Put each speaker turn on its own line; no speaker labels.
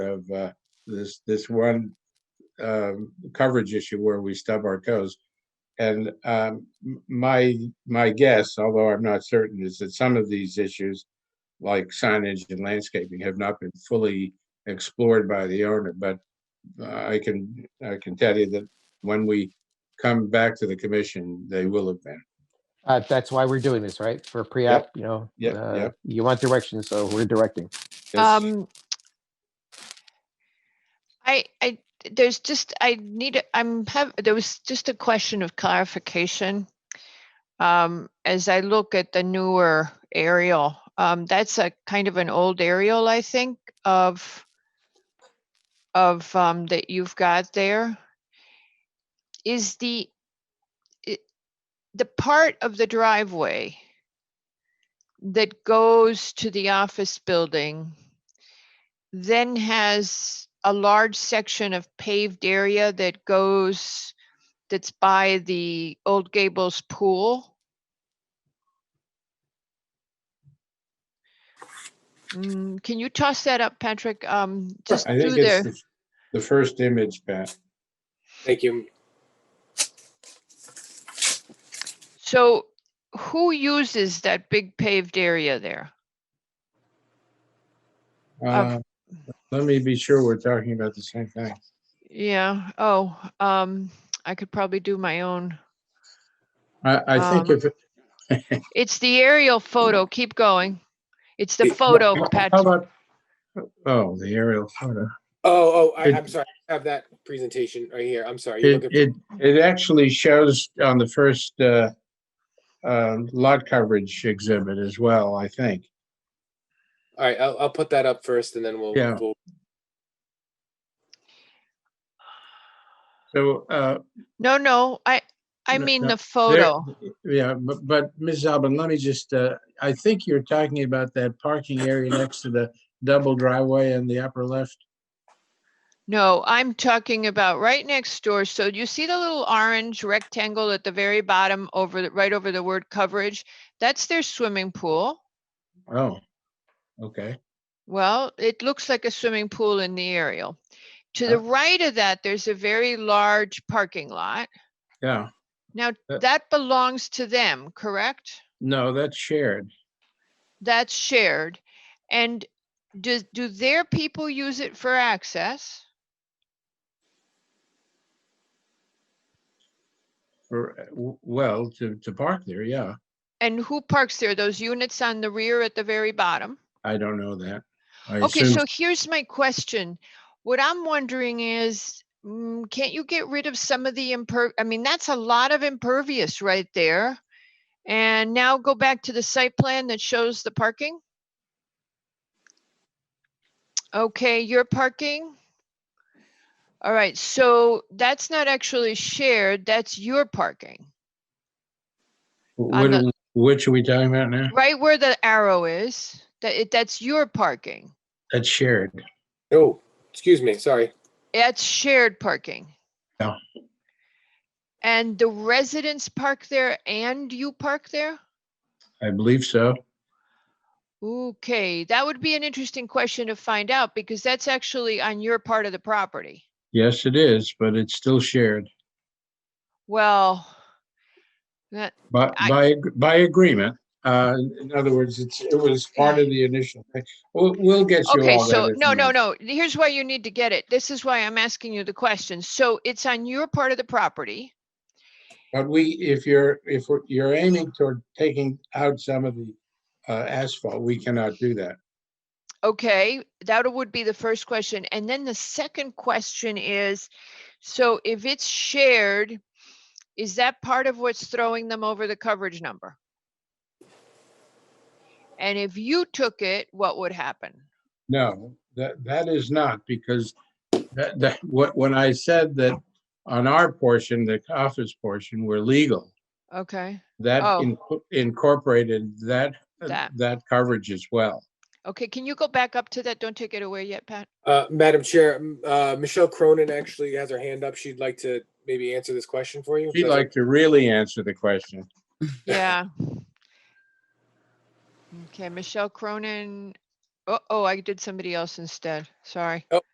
of uh, this, this one um, coverage issue where we stub our toes. And um, m- my, my guess, although I'm not certain, is that some of these issues, like signage and landscaping, have not been fully explored by the owner. But uh, I can, I can tell you that when we come back to the commission, they will have been.
Uh, that's why we're doing this, right? For pre-app, you know?
Yep,
uh,
yep.
You want direction, so we're directing.
That's-
Um, I, I, there's just, I need, a- I'm have, there was just a question of clarification. Um, as I look at the newer aerial, um, that's a kind of an old aerial, I think, of of, um, that you've got there. Is the i- the part of the driveway that goes to the office building then has a large section of paved area that goes, that's by the Old Gables Pool. Mm, can you toss that up, Patrick? Um, just
I
through
think it's
there.
the- the first image, Pat.
Thank you.
So who uses that big paved area there?
Uh, Let me be sure we're talking about the same thing.
Yeah, oh, um, I could probably do my own.
I, I think
Um,
if,
It's the aerial photo. Keep going. It's the
It-
photo,
how
Pat.
about- Oh, the aerial photo.
Oh, oh, I,
It-
I'm sorry. I have that presentation right here. I'm sorry. You're
It,
looking-
it, it actually shows on the first, uh, um, lot coverage exhibit as well, I think.
All right, I'll, I'll put that up first and then we'll,
Yeah.
we'll,
So, uh,
No, no, I, I
No,
mean
no,
the
there-
photo.
yeah, but, but Ms. Albin, let me just, uh, I think you're talking about that parking area next to the double driveway in the upper left.
No, I'm talking about right next door. So do you see the little orange rectangle at the very bottom over, the right over the word coverage? That's their swimming pool.
Oh, okay.
Well, it looks like a swimming pool in the aerial. To
Uh,
the right of that, there's a very large parking lot.
Yeah.
Now,
Uh,
that belongs to them, correct?
No, that's shared.
That's shared. And do, do their people use it for access?
Or, uh, w- well, to, to park there, yeah.
And who parks there? Those units on the rear at the very bottom?
I don't know that. I
Okay,
assume-
so here's my question. What I'm wondering is, mm, can't you get rid of some of the imper, I mean, that's a lot of impervious right there. And now go back to the site plan that shows the parking? Okay, your parking? All right, so that's not actually shared, that's your parking,
What,
the-
are we- which are we talking about now?
right where the arrow is, that it, that's your parking.
That's shared.
oh, excuse me, sorry.
It's shared parking.
Yeah.
And the residents park there and you park there?
I believe so.
Okay, that would be an interesting question to find out because that's actually on your part of the property.
Yes, it is, but it's still shared
Well, that,
by,
I-
by, ag- by agreement. Uh, in other words, it's, it was part of the initial thing. We'll, we'll get you
okay,
all that.
so, no, no,
information.
no, here's why you need to get it. This is why I'm asking you the question. So it's on your part of the property.
But we, if you're, if we're- you're aiming toward taking out some of the uh, asphalt, we cannot do that.
Okay, that would be the first question. And then the second question is, so if it's shared, is that part of what's throwing them over the coverage number? And if you took it, what would happen?
No, that, that is not because that, that, what, when I said that on our portion, the office portion, we're legal.
Okay,
That
Oh.
inco- incorporated that,
That.
that coverage as well.
okay, can you go back up to that? Don't take it away yet, Pat.
Uh, Madam Chair, m- uh, Michelle Cronin actually has her hand up. She'd like to maybe answer this question for you.
She'd like to really answer the question.
Yeah. Okay, Michelle Cronin. Oh, oh, I did somebody else instead. Sorry.